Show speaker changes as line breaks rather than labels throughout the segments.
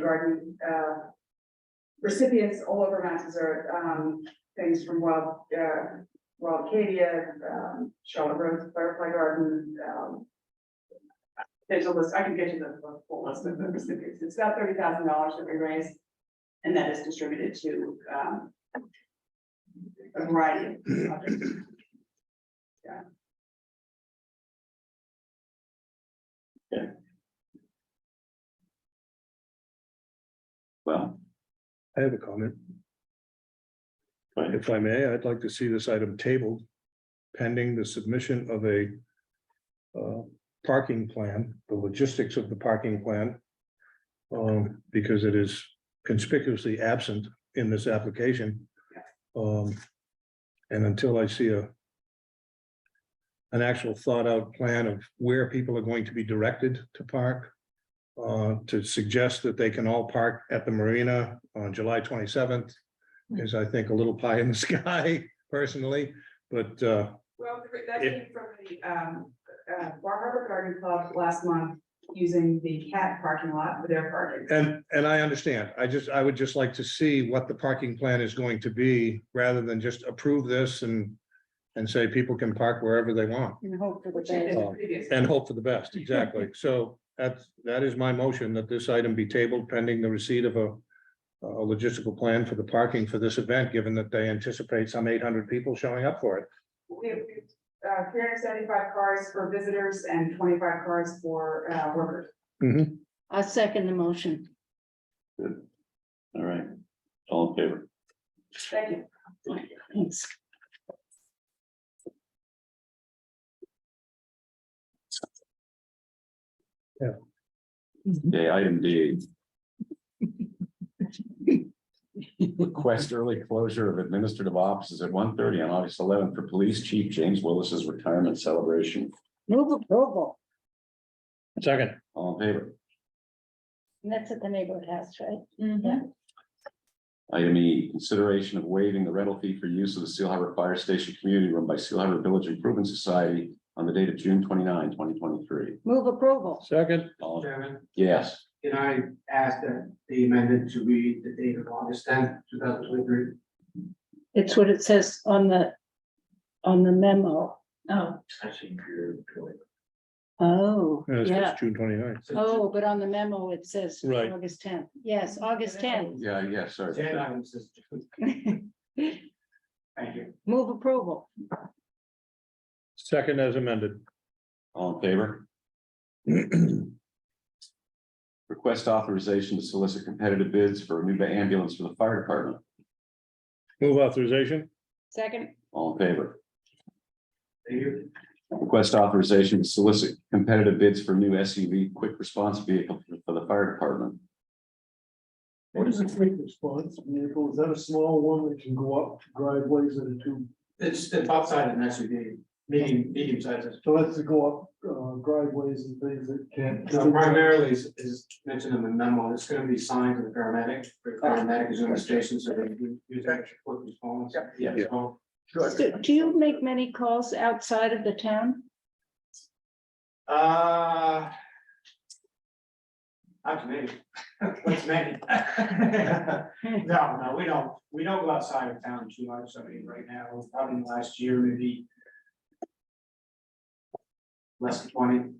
garden, uh, recipients all over Massachusetts, um, things from wild, uh, wild Acadia, um, Charlotte Rose Butterfly Garden, um. There's a list, I can get you the the full list of the recipients, it's about thirty thousand dollars that we raised, and that is distributed to, um. A variety of projects.
Well,
I have a comment.
Go ahead.
If I may, I'd like to see this item tabled pending the submission of a uh, parking plan, the logistics of the parking plan. um, because it is conspicuously absent in this application. Um, and until I see a an actual thought out plan of where people are going to be directed to park, uh, to suggest that they can all park at the marina on July twenty-seventh is, I think, a little pie in the sky personally, but, uh,
Well, th- that
If-
came from the um uh Bar Harbor Garden Club last month using the cat parking lot for their parking.
and, and I understand. I just, I would just like to see what the parking plan is going to be rather than just approve this and, and say people can park wherever they want
And hope for the
Which it
best.
is
Oh.
previous.
and hope for the best. Exactly. So that's, that is my motion that this item be tabled pending the receipt of a a logistical plan for the parking for this event, given that they anticipate some eight hundred people showing up for it.
We have uh three hundred seventy-five cars for visitors and twenty-five cars for uh workers.
I second the motion.
all right, all in favor?
Thank you.
Thanks.
Okay, item D,
Request early closure of administrative offices at 1:30 on August eleventh for Police Chief James Willis's retirement celebration.
Move approval.
Second.
All in favor?
And that's at the neighborhood house, right?
Item E, consideration of waiving the rental fee for use of the Seal Harbor Fire Station Community Room by Seal Harbor Village Improvement Society on the date of June 29, 2023.
Move approval.
Second.
All, in-
Chairman,
yes,
can I ask that the amendment to read the date of August tenth, two thousand twenty-three?
It's what it says on the, on the memo. Oh.
Actually, you're going.
Oh,
And it's
yeah.
just June 29th.
Oh, but on the memo, it says
Right.
August tenth. Yes, August tenth.
yeah, yeah, sorry.
Ten items, is- thank you.
Move approval.
Second as amended.
All in favor? Request authorization to solicit competitive bids for a new ambulance for the fire department.
Move authorization.
Second.
All in favor?
Thank you.
Request authorization to solicit competitive bids for new SUV quick response vehicle for the fire department.
What is a quick response vehicle? Is that a small one that can go up driveways and two,
It's the top side of an SUV, medium, medium sizes.
so that's to go up uh, driveways and things that can't.
No, Primarily is, is mentioned in the memo, it's gonna be signed to the paramedic, the paramedic is in the station, so they can use extra quick response.
Yeah.
So,
Do do you make many calls outside of the town?
Uh. Not to me, what's many? No, no, we don't, we don't go outside of town too much, I mean, right now, probably in the last year, maybe. Less than twenty.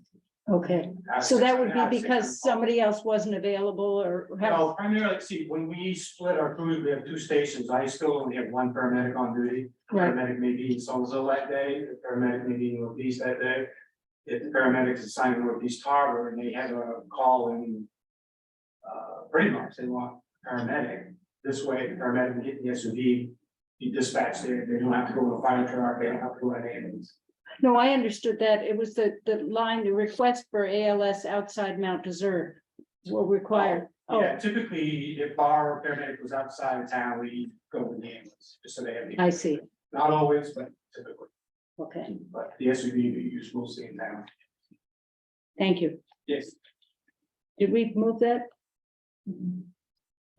Okay, so that would be because somebody else wasn't available or.
No, primarily, see, when we split our crews, we have two stations, I still only have one paramedic on duty.
Right,
Paramedic may be in Somerville that day, the paramedic may be in Northeast that day. If the paramedic is assigned to Northeast Harbor and they have a call in. Uh, Braemar, they want paramedic, this way the paramedic can get the SUV. Be dispatched there, they don't have to go to a fire truck, they don't have to go to an ambulance.
no, I understood that. It was the, the line, the request for ALS outside Mount Desert were required. Oh,
Yeah, typically, if our paramedic was outside of town, we go with the ambulance, just so they have. the-
Oh, I see,
Not always, but typically,
okay,
but the SUV we use mostly in town.
thank you.
Yes.
Did we move that?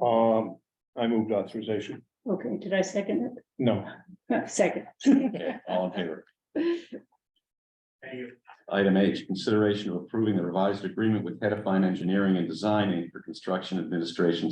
Um, I moved authorization.
Okay, did I second
No.
it? Second.
Okay, all in favor?
Thank you.
Item H, consideration of approving the revised agreement with Head of Fine Engineering and Designing for Construction Administration